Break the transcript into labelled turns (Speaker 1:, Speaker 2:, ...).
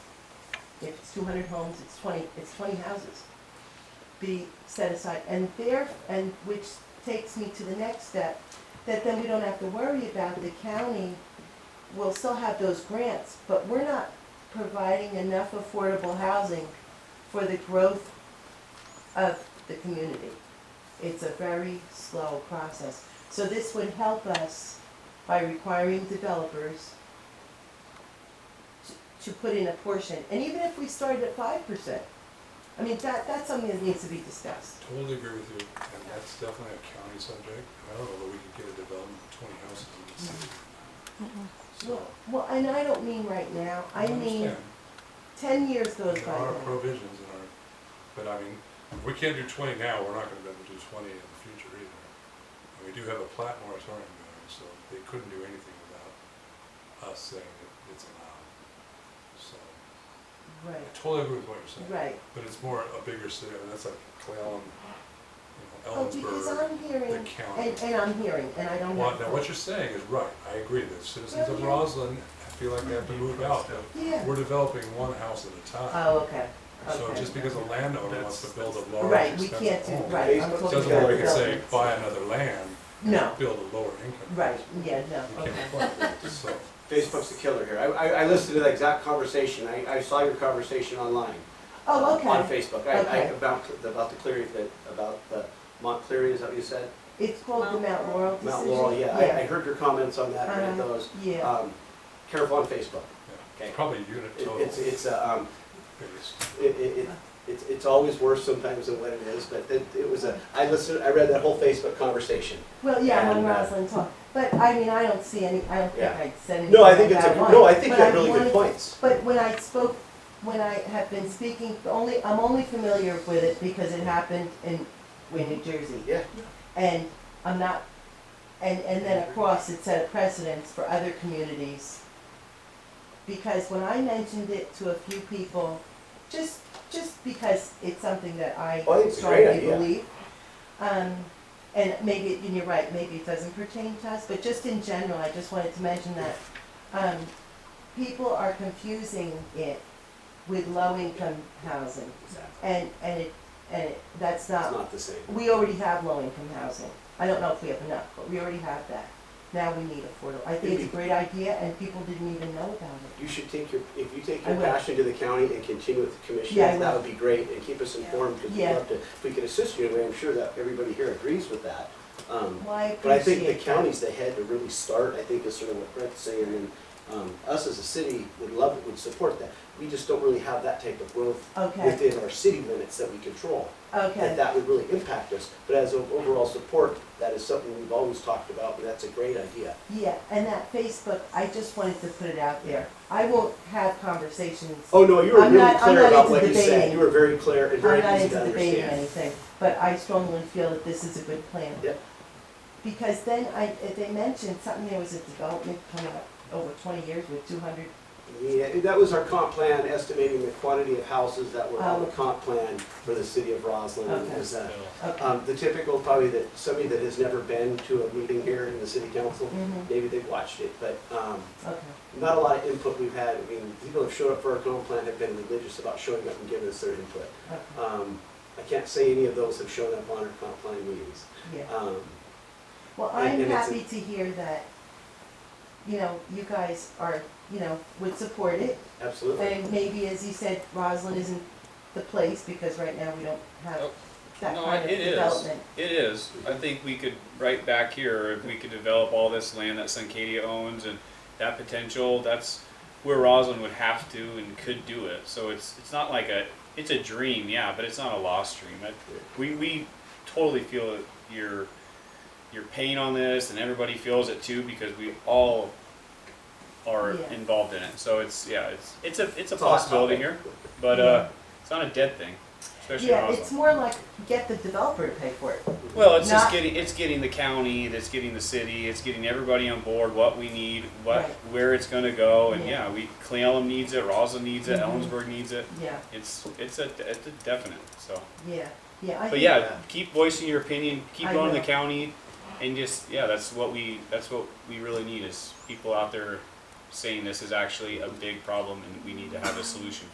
Speaker 1: If it's two hundred homes, it's twenty, it's twenty houses be set aside. And there, and which takes me to the next step, that then we don't have to worry about the county will still have those grants, but we're not providing enough affordable housing for the growth of the community. It's a very slow process. So this would help us by requiring developers to- to put in a portion, and even if we started at five percent, I mean, that, that's something that needs to be discussed.
Speaker 2: Totally agree with you, and that's definitely a county subject. I don't know that we could get a development of twenty houses in the city. So,
Speaker 1: Well, well, and I don't mean right now, I mean,
Speaker 2: understand.
Speaker 1: ten years goes
Speaker 2: There
Speaker 1: by
Speaker 2: are
Speaker 1: now.
Speaker 2: provisions in our, but I mean, if we can't do twenty now, we're not gonna be able to do twenty in the future either. And we do have a plat moratorium going, so they couldn't do anything without us saying that it's allowed. So,
Speaker 1: Right,
Speaker 2: I totally agree with what you're saying.
Speaker 1: right.
Speaker 2: But it's more a bigger city, and that's like Clallam, you know,
Speaker 1: Oh, because I'm
Speaker 2: Ellensburg, the
Speaker 1: hearing,
Speaker 2: county.
Speaker 1: and, and I'm hearing, and I don't
Speaker 2: Well,
Speaker 1: have.
Speaker 2: now, what you're saying is right, I agree, the citizens of
Speaker 1: Yeah.
Speaker 2: Roslyn feel like they have to move out.
Speaker 1: Yeah.
Speaker 2: We're developing one house at a time,
Speaker 1: Oh, okay,
Speaker 2: so
Speaker 1: okay.
Speaker 2: just because a landowner wants to build a large
Speaker 1: Right, we
Speaker 2: expensive
Speaker 1: can't do,
Speaker 2: home,
Speaker 1: right, I'm
Speaker 3: Doesn't
Speaker 1: talking
Speaker 2: Doesn't
Speaker 1: about
Speaker 2: mean we can say,
Speaker 1: developments.
Speaker 2: buy another land,
Speaker 1: No,
Speaker 2: and build a lower income.
Speaker 1: right, yeah, no,
Speaker 2: You
Speaker 1: okay.
Speaker 2: can't afford that, so,
Speaker 3: Facebook's the killer here. I, I, I listened to that exact conversation. I, I saw your conversation online.
Speaker 1: Oh, okay.
Speaker 3: On Facebook. I, I,
Speaker 1: Okay.
Speaker 3: about, the- about the Cleary, the, about the Montclair, is that what you said?
Speaker 1: It's called the Mount Laurel decision?
Speaker 3: Mount Laurel, yeah. I, I heard your comments on that, read
Speaker 1: Uh-huh.
Speaker 3: those.
Speaker 1: Yeah,
Speaker 3: Um, careful on Facebook.
Speaker 2: yeah,
Speaker 3: Okay.
Speaker 2: it's probably a unit
Speaker 3: It-
Speaker 2: total
Speaker 3: It's,
Speaker 2: biggest.
Speaker 3: it's, a, um, it, it, it- it's, it's always worse sometimes than what it is, but it, it was a, I listened, I read that whole Facebook conversation.
Speaker 1: well, yeah, I'm on
Speaker 3: and, uh,
Speaker 1: Roslyn Talk, but I mean, I don't see any, I don't think
Speaker 3: Yeah.
Speaker 1: I said anything
Speaker 3: No, I think it's a,
Speaker 1: about one,
Speaker 3: no, I think
Speaker 1: but
Speaker 3: you have really good
Speaker 1: wanted-
Speaker 3: points.
Speaker 1: But when I spoke, when I have been speaking, the only, I'm only familiar with it because it happened in, in New Jersey.
Speaker 3: Yeah.
Speaker 1: And I'm not, and, and then across it set a precedence for other communities. Because when I mentioned it to a few people, just, just because it's something that I
Speaker 3: Oh, I think it's a great
Speaker 1: strongly
Speaker 3: idea.
Speaker 1: believe. Um, and maybe, and you're right, maybe it doesn't pertain to us, but just in general, I just wanted to mention that, um, people are confusing it with low-income housing.
Speaker 3: Exactly.
Speaker 1: And, and it, and it, that's
Speaker 3: It's
Speaker 1: not
Speaker 3: not the same.
Speaker 1: we already have low-income housing. I don't know if we have enough, but we already have that. Now we need affordable. I think it's a great idea, and people didn't even know about it.
Speaker 3: You should take your, if you take
Speaker 1: I
Speaker 3: your
Speaker 1: will.
Speaker 3: passion to the county and continue with the commission,
Speaker 1: Yeah, I
Speaker 3: that
Speaker 1: will.
Speaker 3: would be great, and keep us informed, because we'd
Speaker 1: Yeah.
Speaker 3: love to, if we could assist you, in a way, I'm sure that everybody here agrees with that. Um,
Speaker 1: Well, I
Speaker 3: But I think the
Speaker 1: appreciate that.
Speaker 3: county's the head to really start, I think is sort of what Brett's saying, and um, us as a city would love, would support that. We just don't really have that type of growth
Speaker 1: Okay,
Speaker 3: within our city limits that we control. That
Speaker 1: okay,
Speaker 3: that would really impact us, but as an overall support, that is something we've always talked about, and that's a great idea.
Speaker 1: yeah, and that Facebook, I just wanted to put it out there. I won't have conversations.
Speaker 3: Oh, no, you were
Speaker 1: I'm
Speaker 3: really
Speaker 1: not- I'm
Speaker 3: clear
Speaker 1: not
Speaker 3: about
Speaker 1: into
Speaker 3: what you said.
Speaker 1: debating.
Speaker 3: You were very clear and
Speaker 1: I'm
Speaker 3: very
Speaker 1: not
Speaker 3: easy
Speaker 1: into
Speaker 3: to
Speaker 1: debating
Speaker 3: understand.
Speaker 1: anything, but I strongly feel that this is a good plan.
Speaker 3: Yep.
Speaker 1: Because then I, if they mentioned something, there was a development coming up over twenty years with two hundred,
Speaker 3: Yeah, that was our comp plan, estimating the quantity of houses that were on the
Speaker 1: Oh.
Speaker 3: comp plan for the city of Roslyn. It
Speaker 1: Okay.
Speaker 3: was, uh,
Speaker 1: okay.
Speaker 3: um, The typical, probably that, somebody that has never been to a meeting here in the city council,
Speaker 1: Mhm.
Speaker 3: maybe they've watched it, but um,
Speaker 1: Okay,
Speaker 3: not a lot of input we've had. I mean, people have showed up for our comp plan, have been religious about showing up and giving us their input.
Speaker 1: okay,
Speaker 3: Um, I can't say any of those have shown up on our comp plan meetings.
Speaker 1: yeah.
Speaker 3: Um,
Speaker 1: Well,
Speaker 3: And-
Speaker 1: I'm
Speaker 3: and it's a-
Speaker 1: happy to hear that, you know, you guys are, you know, would support it.
Speaker 3: Absolutely.
Speaker 1: And maybe, as you said, Roslyn isn't the place because right now we don't have
Speaker 4: Nope.
Speaker 1: Oh, that
Speaker 4: No,
Speaker 1: kind of
Speaker 4: it is.
Speaker 1: development.
Speaker 4: It is. I think we could, right back here, if we could develop all this land that Suncadia owns and that potential, that's where Roslyn would have to and could do it. So it's, it's not like a, it's a dream, yeah, but it's not a lost dream. I- We, we totally feel your, your pain on this and everybody feels it too because we all are
Speaker 1: Yeah.
Speaker 4: involved in it. So it's, yeah, it's, it's a, it's a
Speaker 3: It's a hot
Speaker 4: possibility
Speaker 3: topic.
Speaker 4: here, but, uh, it's not a dead thing, especially in
Speaker 1: Yeah,
Speaker 4: Roslyn.
Speaker 1: it's more like get the developer to pay for it.
Speaker 4: Well, it's
Speaker 1: Not-
Speaker 4: just getting it's getting the county, it's getting the city, it's getting everybody on board. What we need, what
Speaker 1: Right.
Speaker 4: where it's going to go, and
Speaker 1: Yeah.
Speaker 4: yeah, we Clealum needs it, Roslyn needs it,
Speaker 1: Mhm.
Speaker 4: Ellensburg needs it.
Speaker 1: Yeah,
Speaker 4: It's it's a it's a definite. So,
Speaker 1: yeah, yeah. I
Speaker 4: but
Speaker 1: think-
Speaker 4: yeah,
Speaker 3: Yeah.
Speaker 4: keep voicing your opinion, keep
Speaker 1: I
Speaker 4: going to
Speaker 1: will.
Speaker 4: the county, and just yeah, that's what we that's what we really need is people out there saying this is actually a big problem and we need to have a solution